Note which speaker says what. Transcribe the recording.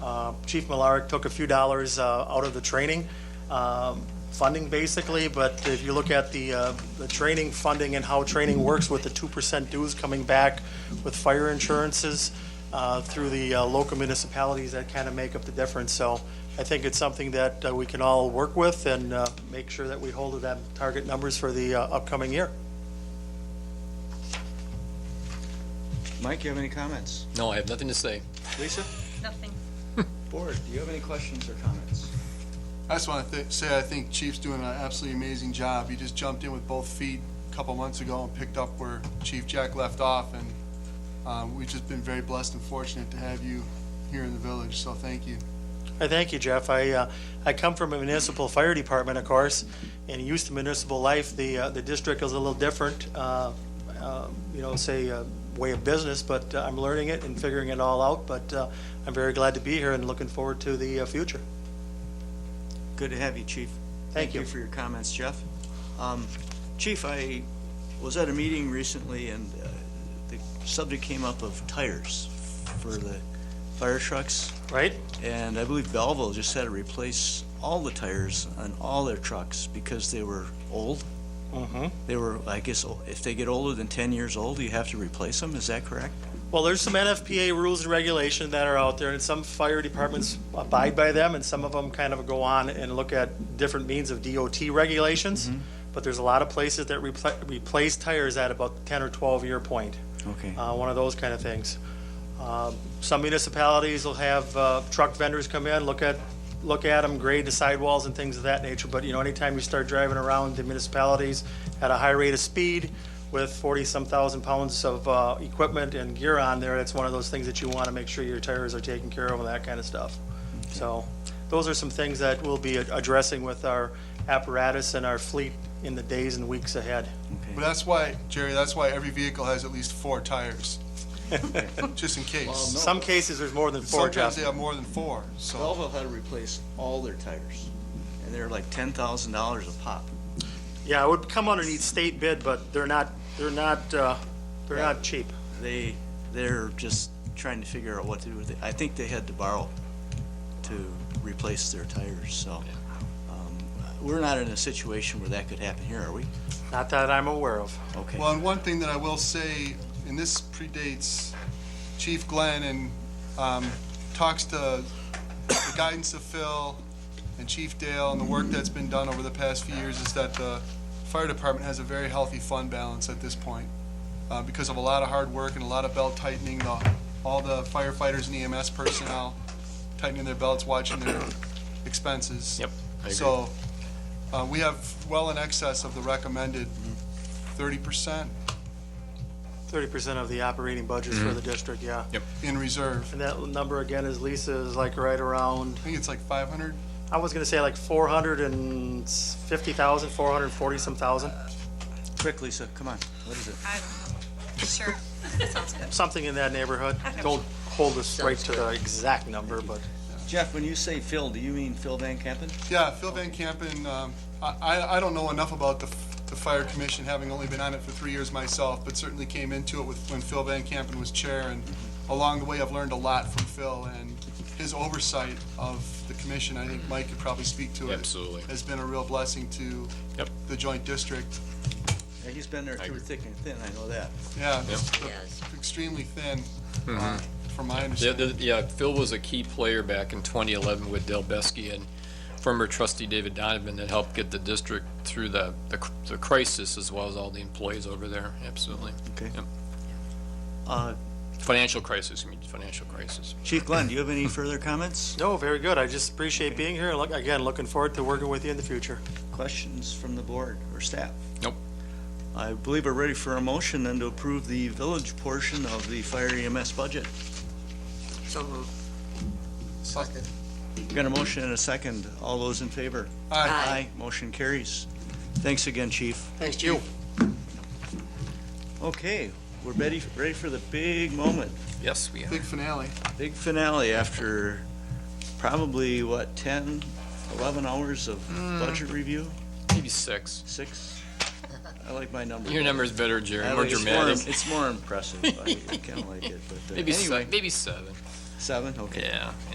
Speaker 1: Uh, Chief Millard took a few dollars uh, out of the training um, funding, basically, but if you look at the, uh, the training funding and how training works with the 2% dues coming back with fire insurances uh, through the uh, local municipalities, that kind of make up the difference. So I think it's something that uh, we can all work with and uh, make sure that we hold to that target numbers for the uh, upcoming year.
Speaker 2: Mike, you have any comments?
Speaker 3: No, I have nothing to say.
Speaker 2: Lisa?
Speaker 4: Nothing.
Speaker 2: Board, do you have any questions or comments?
Speaker 5: I just want to say, I think Chief's doing an absolutely amazing job. He just jumped in with both feet a couple months ago and picked up where Chief Jack left off, and um, we've just been very blessed and fortunate to have you here in the village, so thank you.
Speaker 1: Thank you, Jeff. I, uh, I come from a municipal fire department, of course, and used to municipal life. The, uh, the district is a little different, uh, um, you know, say, uh, way of business, but uh, I'm learning it and figuring it all out. But uh, I'm very glad to be here and looking forward to the uh, future.
Speaker 2: Good to have you, Chief.
Speaker 1: Thank you.
Speaker 2: for your comments, Jeff. Um, Chief, I was at a meeting recently, and uh, the subject came up of tires for the fire trucks,
Speaker 1: Right?
Speaker 2: and I believe Belleville just had to replace all the tires on all their trucks because they were old.
Speaker 1: Mm-hmm.
Speaker 2: They were, I guess, o- if they get older than 10 years old, you have to replace them, is that correct?
Speaker 1: Well, there's some NFPA rules and regulation that are out there, and some fire departments abide by them, and some of them kind of go on and look at different means of DOT regulations. But there's a lot of places that repla- replace tires at about the 10 or 12 year point,
Speaker 2: Okay.
Speaker 1: uh, one of those kind of things. Um, Some municipalities will have uh, truck vendors come in, look at, look at them, grade the sidewalls and things of that nature. But, you know, anytime you start driving around the municipalities at a high rate of speed with 40-some thousand pounds of uh, equipment and gear on there, it's one of those things that you want to make sure your tires are taken care of and that kind of stuff. So those are some things that we'll be ad- addressing with our apparatus and our fleet in the days and weeks ahead.
Speaker 2: Okay.
Speaker 5: But that's why, Jerry, that's why every vehicle has at least four tires, just in
Speaker 2: Well,
Speaker 5: case.
Speaker 2: no.
Speaker 1: Some cases, there's more than four, Jeff.
Speaker 5: Sometimes they have more than four, so.
Speaker 2: Belleville had to replace all their tires, and they're like ten thousand dollars a pop.
Speaker 1: Yeah, it would come underneath state bid, but they're not, they're not, uh, they're not cheap.
Speaker 2: They, they're just trying to figure out what to do with it. I think they had to borrow to replace their tires, so. um, We're not in a situation where that could happen here, are we?
Speaker 1: Not that I'm aware of.
Speaker 2: Okay.
Speaker 5: Well, and one thing that I will say, and this predates Chief Glenn and um, talks to the guidance of Phil and Chief Dale and the work that's been done over the past few years is that the fire department has a very healthy fund balance at this point. uh, Because of a lot of hard work and a lot of belt tightening, the- all the firefighters and EMS personnel tightening their belts, watching their expenses.
Speaker 3: Yep, I agree.
Speaker 5: So uh, we have well in excess of the recommended thirty percent
Speaker 1: Thirty percent of the operating budget for the district, yeah.
Speaker 3: Yep.
Speaker 5: in reserve.
Speaker 1: And that number again is Lisa is like right around,
Speaker 5: I think it's like five hundred.
Speaker 1: I was gonna say like four hundred and fifty thousand, four hundred and forty some thousand,
Speaker 2: Quick, Lisa, come on, what is it?
Speaker 4: I don't know. Sure. That sounds good.
Speaker 1: something in that neighborhood.
Speaker 4: Okay.
Speaker 1: Don't hold us right to the exact number, but
Speaker 2: Jeff, when you say Phil, do you mean Phil Van Campen?
Speaker 5: Yeah, Phil Van Campen, um, I, I- I don't know enough about the, f- the fire commission, having only been on it for three years myself, but certainly came into it with, when Phil Van Campen was chair, and along the way, I've learned a lot from Phil, and his oversight of the commission, I think Mike could probably speak to it.
Speaker 3: Absolutely.
Speaker 5: Has been a real blessing to
Speaker 3: Yep.
Speaker 5: the joint district.
Speaker 2: Yeah, He's been there
Speaker 3: I
Speaker 2: through
Speaker 3: agree.
Speaker 2: thick and thin, I know that.
Speaker 5: Yeah,
Speaker 3: Yep. Mm-hmm.
Speaker 5: extremely thin, uh, from my
Speaker 3: Yeah,
Speaker 5: understanding.
Speaker 3: the- yeah, Phil was a key player back in 2011 with Del Besky and former trustee David Donovan that helped get the district through the, the cr- the crisis as well as all the employees over there, absolutely.
Speaker 2: Okay.
Speaker 3: Yep.
Speaker 2: Uh,
Speaker 3: Financial crisis, I mean, financial crisis.
Speaker 2: Chief Glenn, do you have any further comments,
Speaker 1: no, very good. I just appreciate being here. Look, again, looking forward to working with you in the future.
Speaker 2: questions from the board or staff?
Speaker 3: Nope.
Speaker 2: I believe we're ready for a motion then to approve the village portion of the fire EMS budget.
Speaker 5: Second.
Speaker 2: We got a motion and a second. All those in favor?
Speaker 5: Aye.
Speaker 2: Motion carries. Thanks again, chief.
Speaker 5: Uh, Thanks, Chief.
Speaker 2: Okay, we're ready, ready for the big moment,
Speaker 3: Yes, we have.
Speaker 5: Big finale.
Speaker 2: big finale after probably, what, 10, 11 hours of budget review?
Speaker 3: Maybe six.
Speaker 2: Six? I like my number.
Speaker 3: Your number's better, Jerry,
Speaker 2: I
Speaker 3: more
Speaker 2: like- it's more-
Speaker 3: dramatic.
Speaker 2: It's more impressive. I kind of like it, but uh,
Speaker 3: Maybe, se-
Speaker 2: anyway,
Speaker 3: maybe seven.
Speaker 2: seven, okay.
Speaker 3: Yeah.